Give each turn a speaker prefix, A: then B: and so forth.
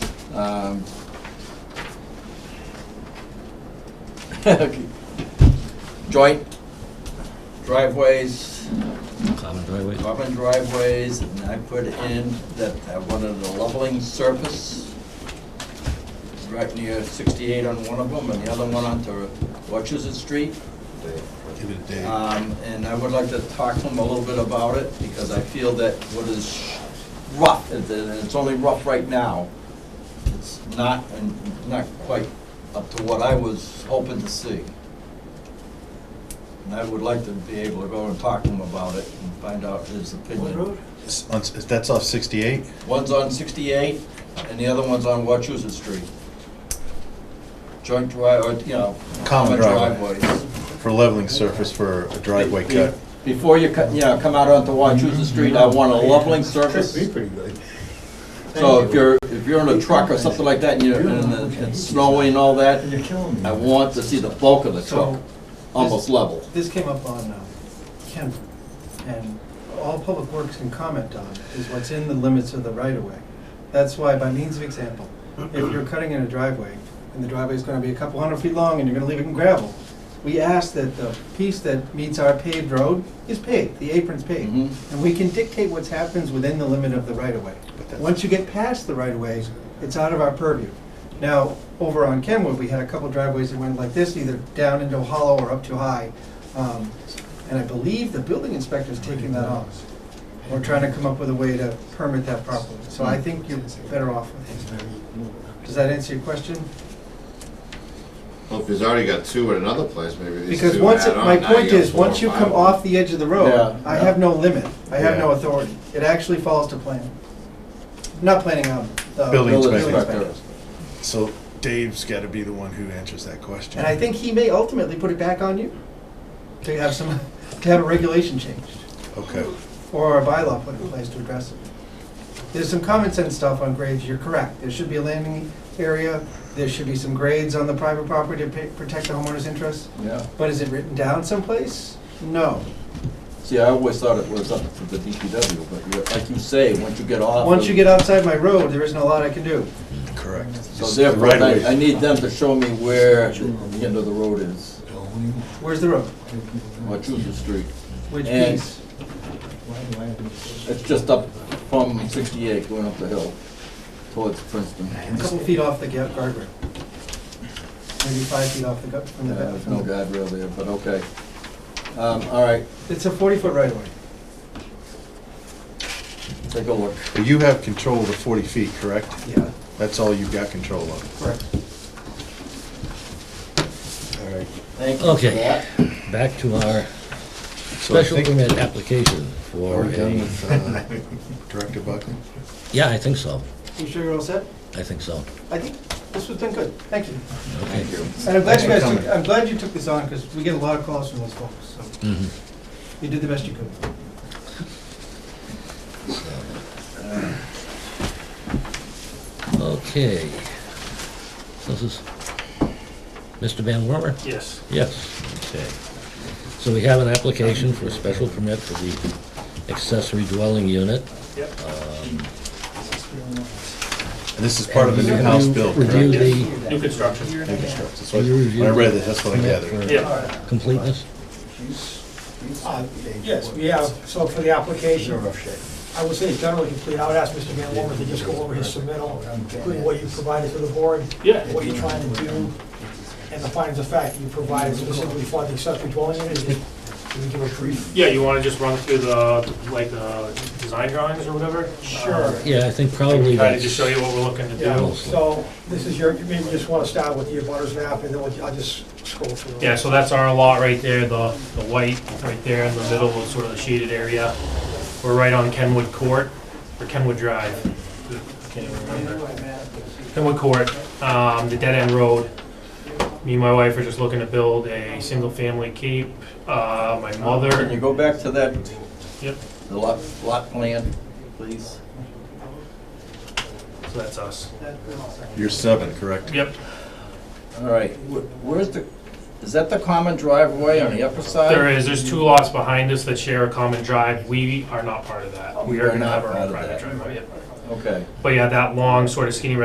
A: Um, okay. Joint driveways,
B: Common driveway.
A: common driveways, and I put in that I wanted a leveling surface right near sixty-eight on one of them, and the other one onto Wachusett Street.
C: Give it a day.
A: Um, and I would like to talk to him a little bit about it, because I feel that what is rough, and it's only rough right now, it's not, and not quite up to what I was hoping to see. And I would like to be able to go and talk to him about it and find out his opinion.
C: It's on- That's off 68?
A: One's on sixty-eight, and the other one's on Wachusett Street. Joint drive, or, you know.
C: Common driveway.
A: driveways.
C: For leveling surface for a driveway
A: Be-
C: cut.
A: Before you, cut- you know, come out onto
D: Mm-hmm.
A: Wachusett Street, I want a leveling surface.
E: Should be pretty good.
A: So if you're, if you're in a truck or something like that, and you're, and it's snowing and all that,
D: You're killing me.
A: I want to see the bulk of the truck,
D: So,
A: almost level.
D: This came up on um, Kemp, and all Public Works can comment on is what's in the limits of the right-of-way. That's why, by means of example, if you're cutting in a driveway, and the driveway's gonna be a couple hundred feet long, and you're gonna leave it in gravel, we ask that the piece that meets our paved road is paved, the apron's paved.
A: Mhm.
D: And we can dictate what happens within the limit of the right-of-way.
C: that's-
D: Once you get past the right-of-way, it's out of our purview. Now, over on Kenwood, we had a couple driveways that went like this, either down into a hollow or up too high. Um, And I believe the building inspector's taking that off. We're trying to come up with a way to permit that properly. So I think you're better off with it. Does that answer your question?
F: Well, if he's already got two at another place, maybe these two
D: Because once,
F: add
D: it-
F: on,
D: my
F: now you
D: point
F: got
D: is,
F: four
D: once
F: or
D: you
F: five.
D: come off the edge of the road,
A: Yeah,
D: I
A: yeah.
D: have no limit. I have no
F: Yeah.
D: authority. It actually falls to planning. Not planning on the.
C: Building
A: Building
C: inspector.
A: inspector.
C: So Dave's got to be the one who answers that question.
D: And I think he may ultimately put it back on you to have some, to have a regulation changed
C: Okay.
D: or a bylaw put in place to address it. There's some common sense stuff on grades, you're correct. There should be a landing area, there should be some grades on the private property to pa- protect the homeowner's interests.
A: Yeah.
D: But is it written down someplace? No.
A: See, I always thought it was up to the DPW, but you're- like you say, once you get off.
D: Once
A: of-
D: you get outside my road, there isn't a lot I can do.
C: Correct.
A: So
C: It's the
A: therefore,
C: right
A: I,
C: way.
A: I need them to show me where the the end of the road is,
D: Where's the road?
A: Wachusett Street.
D: Which
A: And-
D: piece?
A: It's just up from sixty-eight, going up the hill towards Princeton.
D: A couple feet off the ga- guardrail. Maybe five feet off the, gu- from the,
A: Yeah,
D: ba-
A: Uh, There's no
D: from the.
A: guardrail there, but okay. Um, all right,
D: It's a forty-foot right-of-way.
A: take a look.
C: But you have control of the 40 feet, correct?
D: Yeah.
C: That's all you've got control of.
D: Correct.
C: All right.
A: Thank you for
B: Okay.
A: that.
B: Back to our
C: So I
B: special
C: think
B: permit application for,
C: we're done
B: a-
C: with uh, Director Buckley.
B: yeah, I think so.
D: You sure you're all set?
B: I think so.
D: I think this has been good. Thank you.
B: Okay.
D: And I'm glad you guys,
C: Thanks for
D: took- I'm glad you took this on because we get a lot of calls from those folks, so
B: Mhm.
D: you did the best you could.
B: Okay. So This is Mr. Van Wormer?
E: Yes.
B: Yes, okay. So we have an application for a special permit for the accessory dwelling unit.
E: Yep.
C: And this is part of the new house bill, correct?
B: Review
C: New
B: the
E: New construction.
C: construct. That's what- When I read this, that's what I gathered.
E: Yeah.
B: completeness?
G: Uh, Yes, we have, so for the application, I would say it's generally complete. I would ask Mr. Van Wormer to just go over his submittal, including what you provided to the board,
E: Yeah.
G: what you're trying to do, and the findings of fact you provided specifically for the accessory dwelling unit. Can you give a brief?
E: Yeah, you wanna just run through the, like, the design drawings or whatever? Uh,
G: Sure.
B: Yeah, I think probably
E: Kinda
B: that's...
E: just show you what we're looking to
G: Yeah,
E: do.
G: so this is your, maybe you just want to start with the abutters map, and then we'll- I'll just scroll through.
E: Yeah, so that's our lot right there, the, the white, right there in the middle of sort of the shaded area. We're right on Kenwood Court, or Kenwood Drive. Can't even remember. Kenwood Court, um, the dead end road. Me and my wife are just looking to build a single-family cape. Uh, my
A: Can
E: mother,
A: you go back to that,
E: yep,
A: the lot, lot plan, please?
E: so that's us.
C: You're seven, correct?
E: Yep,
A: All right, wh- where's the, is that the common driveway on the upper side?
E: There is, there's two lots behind us that share a common drive. We are not part of that. We are
A: We're
E: gonna
A: Oh, not
E: have our
A: part
E: own
A: of
E: private
A: that.
E: driveway. yep.
A: Okay.
E: But yeah, that long sort of skinny